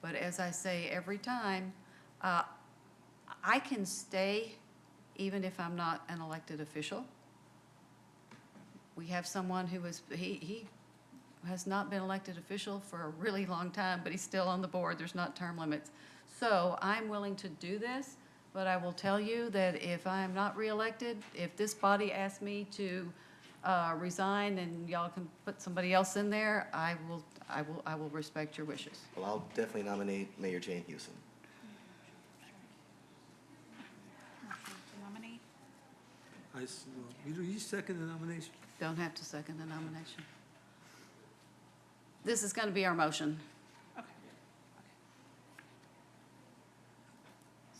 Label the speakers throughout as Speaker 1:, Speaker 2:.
Speaker 1: But as I say every time, uh, I can stay even if I'm not an elected official. We have someone who was, he, he has not been elected official for a really long time, but he's still on the board. There's not term limits. So I'm willing to do this, but I will tell you that if I am not reelected, if this body asks me to uh, resign and y'all can put somebody else in there, I will, I will, I will respect your wishes.
Speaker 2: Well, I'll definitely nominate Mayor Jane Houston.
Speaker 3: Nominee?
Speaker 4: I, s- you you second the nomination?
Speaker 1: Don't have to second the nomination. This is going to be our motion.
Speaker 3: Okay.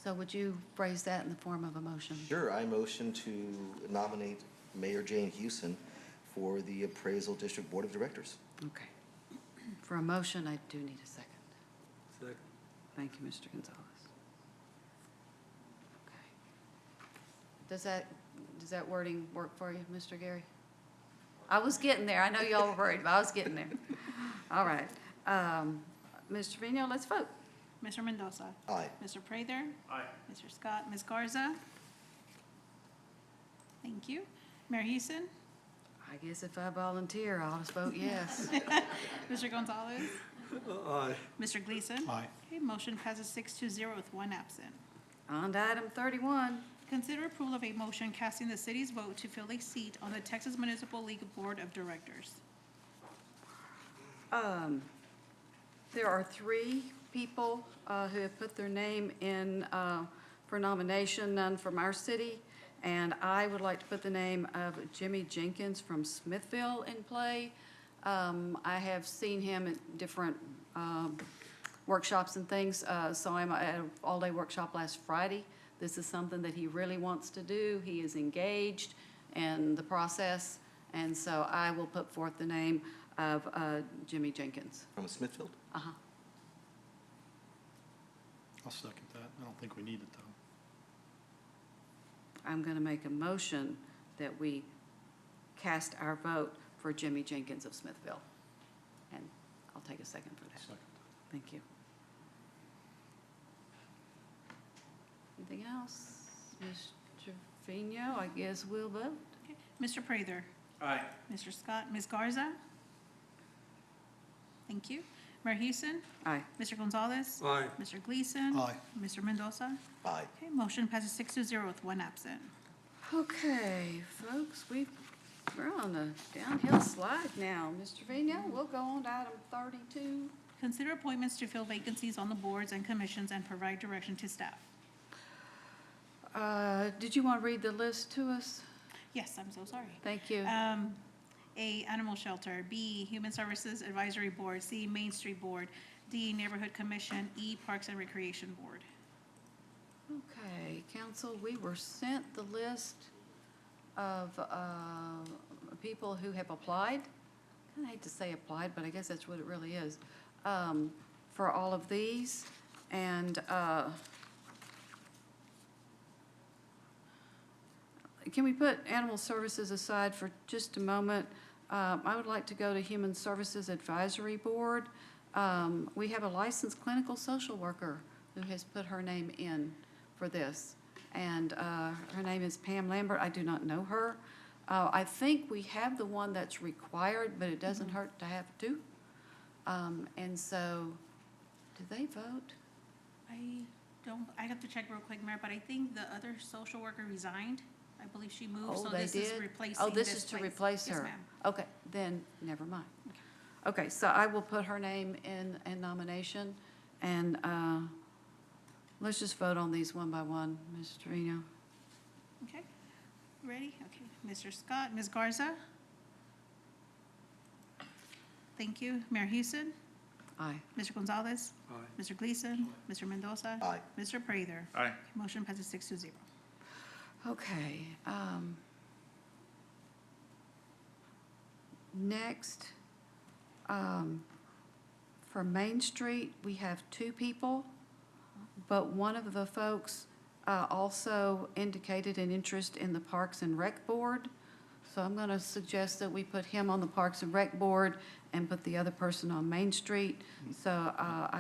Speaker 1: So would you phrase that in the form of a motion?
Speaker 2: Sure, I motion to nominate Mayor Jane Houston for the Appraisal District Board of Directors.
Speaker 1: Okay. For a motion, I do need a second.
Speaker 4: Second.
Speaker 1: Thank you, Mr. Gonzalez. Okay. Does that, does that wording work for you, Mr. Gary? I was getting there. I know y'all were worried, but I was getting there. All right. Um, Mr. Trevino, let's vote.
Speaker 3: Mr. Mendoza?
Speaker 2: Aye.
Speaker 3: Mr. Prather? Aye. Mr. Scott? Ms. Garza? Thank you. Mayor Houston?
Speaker 1: I guess if I volunteer, I'll just vote yes.
Speaker 3: Mr. Gonzalez?
Speaker 4: Uh, Aye.
Speaker 3: Mr. Gleason? Aye. Okay, motion passes six to zero with one absent.
Speaker 1: On to item thirty-one.
Speaker 3: Consider approval of a motion casting the city's vote to fill a seat on the Texas Municipal League Board of Directors.
Speaker 1: Um, There are three people uh, who have put their name in uh, for nomination, none from our city. And I would like to put the name of Jimmy Jenkins from Smithville in play. Um, I have seen him at different um, workshops and things. Uh, Saw him at an all-day workshop last Friday. This is something that he really wants to do. He is engaged in the process. And so I will put forth the name of uh, Jimmy Jenkins.
Speaker 2: From Smithfield?
Speaker 1: Uh-huh.
Speaker 5: I'll second that. I don't think we need it, though.
Speaker 1: I'm going to make a motion that we cast our vote for Jimmy Jenkins of Smithville. And I'll take a second for that.
Speaker 5: Second.
Speaker 1: Thank you. Anything else? Ms. Trevino, I guess we'll vote.
Speaker 3: Okay, Mr. Prather?
Speaker 4: Aye.
Speaker 3: Mr. Scott? Ms. Garza? Thank you. Mayor Houston?
Speaker 1: Aye.
Speaker 3: Mr. Gonzalez?
Speaker 4: Aye.
Speaker 3: Mr. Gleason?
Speaker 5: Aye.
Speaker 3: Mr. Mendoza?
Speaker 2: Aye.
Speaker 3: Okay, motion passes six to zero with one absent.
Speaker 1: Okay, folks, we, we're on a downhill slide now. Ms. Trevino, we'll go on to item 32.
Speaker 3: Consider appointments to fill vacancies on the boards and commissions and provide direction to staff.
Speaker 1: Uh, Did you want to read the list to us?
Speaker 3: Yes, I'm so sorry.
Speaker 1: Thank you.
Speaker 3: Um, A, Animal Shelter, B, Human Services Advisory Board, C, Main Street Board, D, Neighborhood Commission, E, Parks and Recreation Board.
Speaker 1: Okay, council, we were sent the list of uh, people who have applied. I hate to say applied, but I guess that's what it really is, um, for all of these. And uh, can we put animal services aside for just a moment? Um, I would like to go to Human Services Advisory Board. Um, We have a licensed clinical social worker who has put her name in for this. And uh, her name is Pam Lambert. I do not know her. Uh, I think we have the one that's required, but it doesn't hurt to have two. Um, And so, do they vote?
Speaker 3: I don't, I have to check real quick, Mayor, but I think the other social worker resigned. I believe she moved,
Speaker 1: Oh,
Speaker 3: so
Speaker 1: they
Speaker 3: this is
Speaker 1: did?
Speaker 3: replacing
Speaker 1: Oh, this is to
Speaker 3: place.
Speaker 1: replace
Speaker 3: Yes,
Speaker 1: her?
Speaker 3: ma'am.
Speaker 1: Okay, then, never mind. Okay, so I will put her name in, in nomination, and uh, let's just vote on these one by one, Ms. Trevino.
Speaker 3: Okay, ready? Okay, Mr. Scott, Ms. Garza? Thank you. Mayor Houston,
Speaker 1: Aye.
Speaker 3: Mr. Gonzalez,
Speaker 4: Aye.
Speaker 3: Mr. Gleason, Mr. Mendoza.
Speaker 2: Aye.
Speaker 3: Mr. Prather.
Speaker 4: Aye.
Speaker 3: Motion passes six to zero.
Speaker 1: Okay. um, Next, um, for Main Street, we have two people, but one of the folks uh, also indicated an interest in the Parks and Rec Board. So I'm going to suggest that we put him on the Parks and Rec Board and put the other person on Main Street. So uh, I